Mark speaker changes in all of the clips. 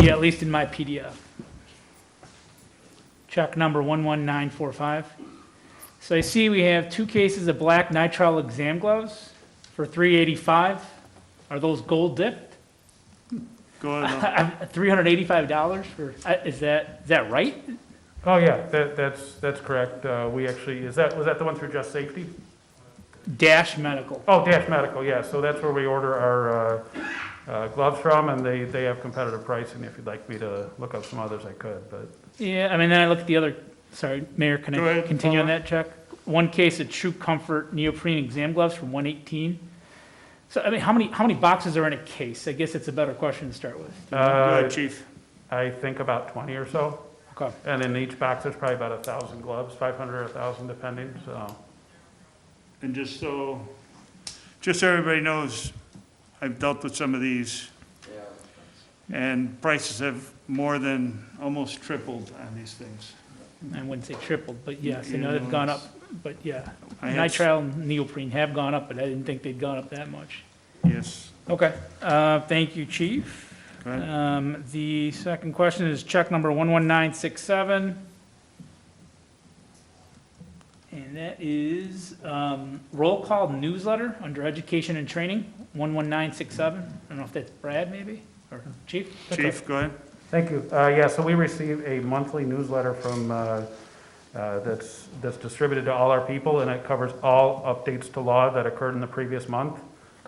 Speaker 1: Yeah, at least in my PDF. Check number 11945. So I see we have two cases of black nitrile exam gloves for 385. Are those gold dipped?
Speaker 2: Go ahead.
Speaker 1: $385 for, uh, is that, is that right?
Speaker 3: Oh, yeah, that, that's, that's correct. Uh, we actually, is that, was that the one through Just Safety?
Speaker 1: Dash Medical.
Speaker 3: Oh, Dash Medical, yeah, so that's where we order our, uh, uh, gloves from, and they, they have competitive pricing. If you'd like me to look up some others, I could, but.
Speaker 1: Yeah, I mean, then I look at the other, sorry, Mayor, can
Speaker 2: Go
Speaker 1: I
Speaker 2: ahead,
Speaker 1: continue on
Speaker 2: Paula.
Speaker 1: that, Chuck? One case of True Comfort neoprene exam gloves from 118. So, I mean, how many, how many boxes are in a case? I guess it's a better question to start with.
Speaker 2: Go
Speaker 3: uh,
Speaker 2: ahead, chief.
Speaker 3: I think about twenty or so,
Speaker 1: Okay.
Speaker 3: and in each box, there's probably about a thousand gloves, five hundred or a thousand depending, so.
Speaker 2: And just so, just so everybody knows, I've dealt with some of these. And prices have more than, almost tripled on these things.
Speaker 1: I wouldn't say tripled, but yes, I know
Speaker 2: Yeah,
Speaker 1: they've gone up,
Speaker 2: it's-
Speaker 1: but yeah.
Speaker 2: I had s-
Speaker 1: Nitrile and neoprene have gone up, but I didn't think they'd gone up that much.
Speaker 2: Yes.
Speaker 1: Okay, uh, thank you, chief.
Speaker 2: Go ahead.
Speaker 1: Um, the second question is check number 11967. And that is, um, roll call newsletter under education and training, 11967. I don't know if that's Brad maybe, or chief?
Speaker 2: Chief, go ahead.
Speaker 3: Thank you. Uh, Yeah, so we receive a monthly newsletter from, uh, uh, that's, that's distributed to all our people, and it covers all updates to law that occurred in the previous month.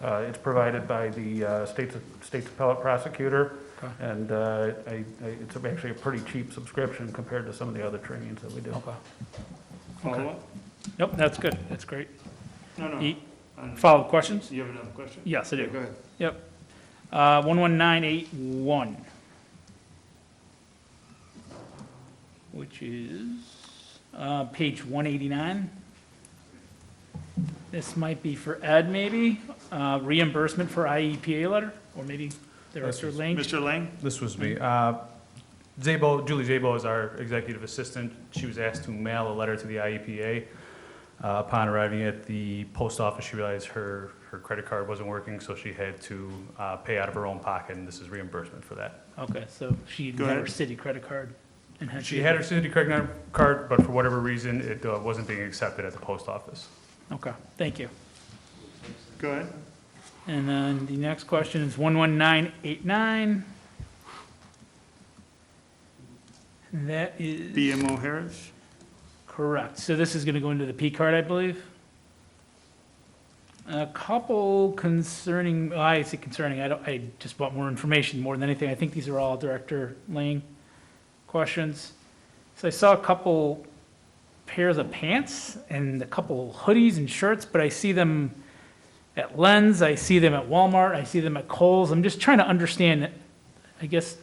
Speaker 3: Uh, It's provided by the uh, state's, state's appellate prosecutor,
Speaker 1: Okay.
Speaker 3: and uh, I- I- it's actually a pretty cheap subscription compared to some of the other trainings that we do.
Speaker 1: Okay.
Speaker 2: Follow up?
Speaker 1: Nope, that's good, that's great.
Speaker 2: No, no.
Speaker 1: E-
Speaker 2: I don't know.
Speaker 1: Follow-up questions?
Speaker 2: You have another question?
Speaker 1: Yes, I do.
Speaker 2: Go ahead.
Speaker 1: Yep. Uh, 11981. Which is uh, page 189. This might be for Ed, maybe, uh, reimbursement for IEPA letter, or maybe Director Lane.
Speaker 2: Mr. Lang?
Speaker 4: This was me. Uh, Zabo, Julie Zabo is our executive assistant. She was asked to mail a letter to the IEPA. Uh, Upon arriving at the post office, she realized her, her credit card wasn't working, so she had to uh, pay out of her own pocket, and this is reimbursement for that.
Speaker 1: Okay, so she
Speaker 2: Go
Speaker 1: had her
Speaker 2: ahead.
Speaker 1: city credit card. and
Speaker 4: She had her city credit card, but for whatever reason, it uh, wasn't being accepted at the post office.
Speaker 1: Okay, thank you.
Speaker 2: Go ahead.
Speaker 1: And then the next question is 11989. And That is.
Speaker 2: BMO Harris?
Speaker 1: Correct. So this is going to go into the P card, I believe. A couple concerning, well, I say concerning, I don't, I just want more information more than anything. I think these are all Director Lang questions. So I saw a couple pairs of pants and a couple hoodies and shirts, but I see them at Lens, I see them at Walmart, I see them at Kohl's. I'm just trying to understand, I guess,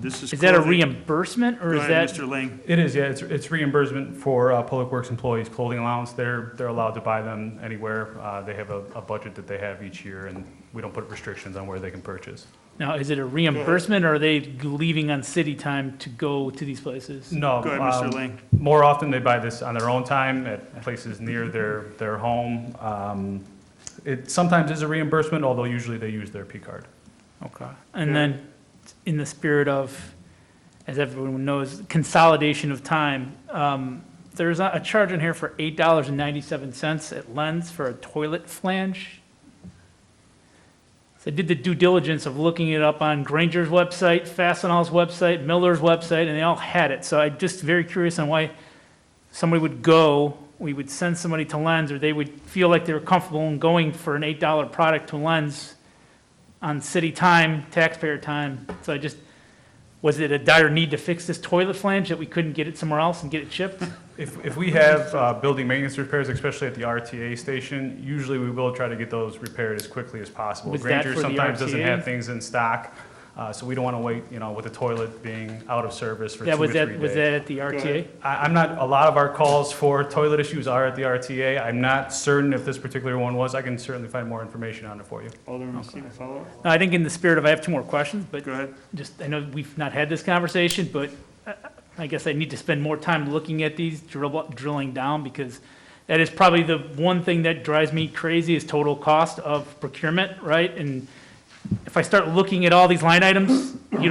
Speaker 2: This is.
Speaker 1: is that a
Speaker 2: clothing.
Speaker 1: reimbursement or
Speaker 2: Go
Speaker 1: is
Speaker 2: ahead,
Speaker 1: that?
Speaker 2: Mr. Lang.
Speaker 4: It is, yeah, it's, it's reimbursement for uh, Public Works employees' clothing allowance. They're, they're allowed to buy them anywhere. Uh, They have a, a budget that they have each year, and we don't put restrictions on where they can purchase.
Speaker 1: Now, is it a reimbursement, or are they leaving on city time to go to these places?
Speaker 4: No.
Speaker 2: Go ahead, Mr.
Speaker 4: um,
Speaker 2: Lang.
Speaker 4: More often, they buy this on their own time at places near their, their home. Um, It sometimes is a reimbursement, although usually they use their P card.
Speaker 1: Okay. And then, in the spirit of, as everyone knows, consolidation of time, um, there's a a charge in here for eight dollars and ninety-seven cents at Lens for a toilet flange. So I did the due diligence of looking it up on Granger's website, Fastenal's website, Miller's website, and they all had it. So I'm just very curious on why somebody would go, we would send somebody to Lens, or they would feel like they were comfortable in going for an eight-dollar product to Lens on city time, taxpayer time. So I just, was it a dire need to fix this toilet flange that we couldn't get it somewhere else and get it shipped?
Speaker 4: If, if we have uh, building maintenance repairs, especially at the RTA station, usually we will try to get those repaired as quickly as possible.
Speaker 1: Was that
Speaker 4: Granger
Speaker 1: for the
Speaker 4: sometimes doesn't
Speaker 1: RTA?
Speaker 4: have things in stock, uh, so we don't want to wait, you know, with the toilet being out of service for two
Speaker 1: That
Speaker 4: or
Speaker 1: was
Speaker 4: three
Speaker 1: that, was
Speaker 4: days.
Speaker 1: that at the RTA?
Speaker 2: ahead.
Speaker 4: I, I'm not, a lot of our calls for toilet issues are at the RTA. I'm not certain if this particular one was. I can certainly find more information on it for you.
Speaker 2: Alderman Stephen, follow up?
Speaker 1: No, I think in the spirit of, I have two more questions, but
Speaker 2: Go ahead.
Speaker 1: just, I know we've not had this conversation, but uh, I guess I need to spend more time looking at these, drill- drilling down, because that is probably the one thing that drives me crazy is total cost of procurement, right? And if I start looking at all these line items, you don't